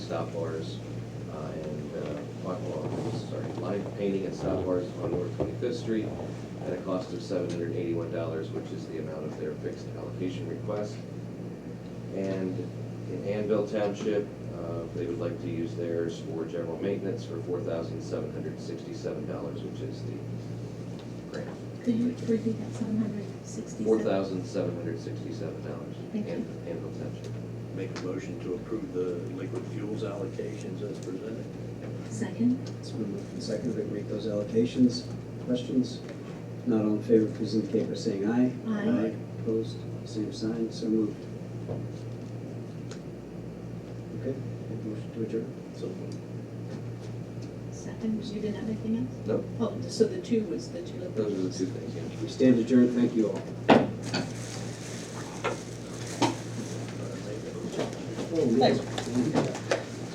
stop bars uh, and uh, walk along, sorry, line painting and stop bars on North Twenty-Fifth Street at a cost of seven hundred eighty-one dollars, which is the amount of their fixed allocation request. And in Anvil Township, uh, they would like to use theirs for general maintenance for four thousand seven hundred sixty-seven dollars, which is the grant. Could you repeat that, seven hundred sixty-seven? Four thousand seven hundred sixty-seven dollars, Thank you. Anvil Township. Make a motion to approve the liquid fuels allocations as presented. Second? It's been moved and seconded, we can make those allocations. Questions? Not all in favor, please indicate by saying aye. Aye. Opposed, same sign, so moved. Okay, make a motion to adjourn. So uh, Second, was you didn't have anything else? No. Oh, so the two was the two. of Those are the two things, yeah. We stand adjourned, thank you all. uh, make a motion. Thanks.